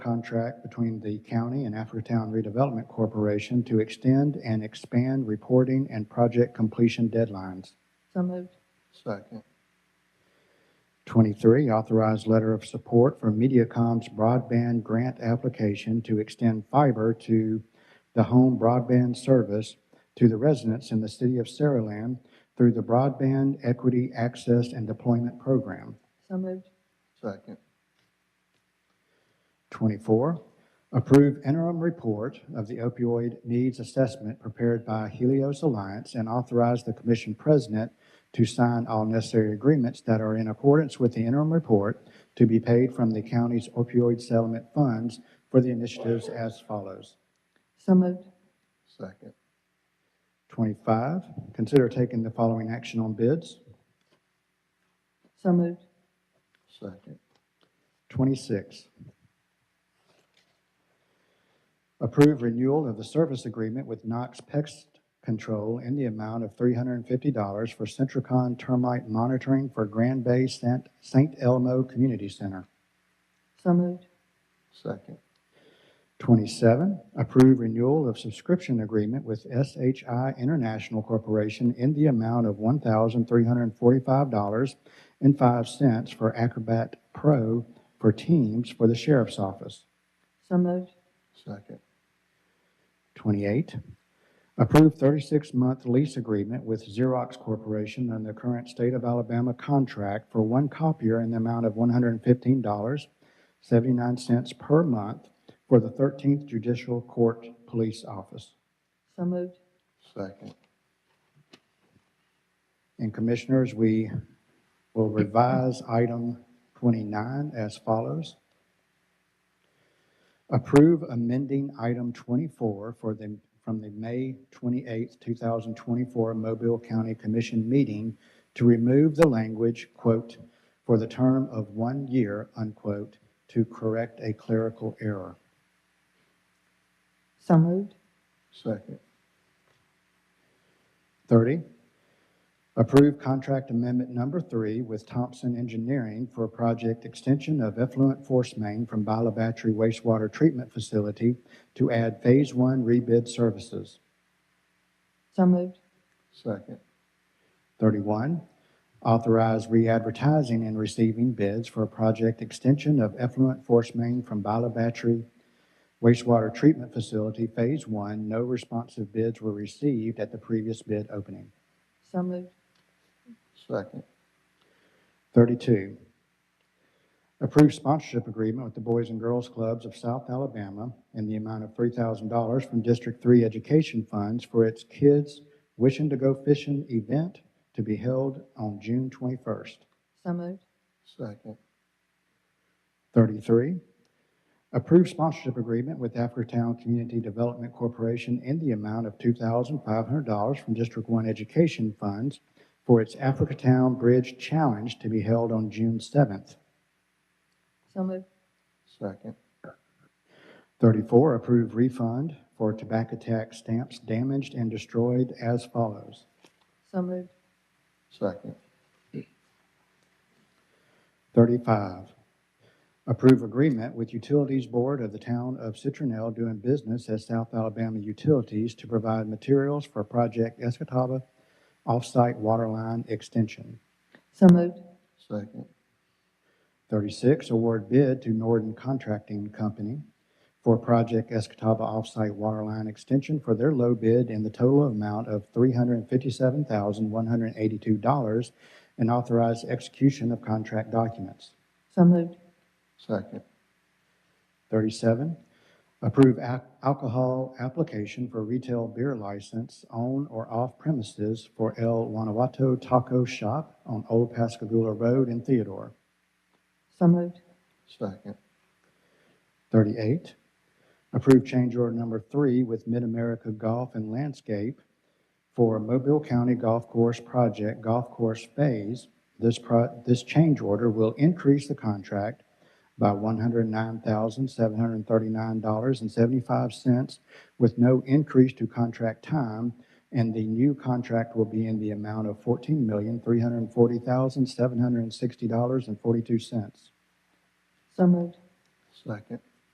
contract between the county and Africatown Redevelopment Corporation to extend and expand reporting and project completion deadlines. So moved. Second. 23, authorize letter of support for Mediacom's broadband grant application to extend fiber to the home broadband service to the residents in the city of Saraland through the Broadband Equity Access and Deployment Program. So moved. Second. 24, approve interim report of the opioid needs assessment prepared by Helios Alliance and authorize the commission president to sign all necessary agreements that are in accordance with the interim report to be paid from the county's opioid settlement funds for the initiatives as follows. So moved. Second. 25, consider taking the following action on bids. So moved. Second. 26, approve renewal of the service agreement with Knox Pest Control in the amount of $350 for Centricon termite monitoring for Grand Bay Sant- St. Elmo Community Center. So moved. Second. 27, approve renewal of subscription agreement with SHI International Corporation in the amount of $1,345.05 for Acrobat Pro for Teams for the Sheriff's Office. So moved. Second. 28, approve 36-month lease agreement with Xerox Corporation on the current state of Alabama contract for one copier in the amount of $115.79 per month for the 13th Judicial Court Police Office. So moved. Second. And Commissioners, we will revise item 29 as follows. Approve amending item 24 for the, from the May 28th, 2024 Mobile County Commission meeting to remove the language, quote, "for the term of one year," unquote, to correct a clerical error. So moved. Second. 30, approve contract amendment number three with Thompson Engineering for project extension of effluent force main from Bila Battery wastewater treatment facility to add Phase One rebid services. So moved. Second. 31, authorize re-advertising and receiving bids for a project extension of effluent force main from Bila Battery wastewater treatment facility, Phase One. No responsive bids were received at the previous bid opening. So moved. Second. 32, approve sponsorship agreement with the Boys and Girls Clubs of South Alabama in the amount of $3,000 from District 3 Education Funds for its Kids Wishing to Go Fishing event to be held on June 21st. So moved. Second. 33, approve sponsorship agreement with Africatown Community Development Corporation in the amount of $2,500 from District 1 Education Funds for its Africatown Bridge Challenge to be held on June 7th. So moved. Second. 34, approve refund for tobacco tax stamps damaged and destroyed as follows. So moved. Second. 35, approve agreement with Utilities Board of the Town of Citronelle doing business as South Alabama Utilities to provide materials for Project Escataba Offsite Waterline Extension. So moved. Second. 36, award bid to Norden Contracting Company for Project Escataba Offsite Waterline Extension for their low bid in the total amount of $357,182 and authorize execution of contract documents. So moved. Second. 37, approve ac- alcohol application for retail beer license on or off premises for El Guanajuato Taco Shop on Old Pascagoula Road in Theodore. So moved. Second. 38, approve change order number three with Mid-America Golf and Landscape for Mobile County Golf Course Project Golf Course Phase. This pro, this change order will increase the contract by $109,739.75 with no increase to contract time, and the new contract will be in the amount of $14,340,760.42. So moved. Second.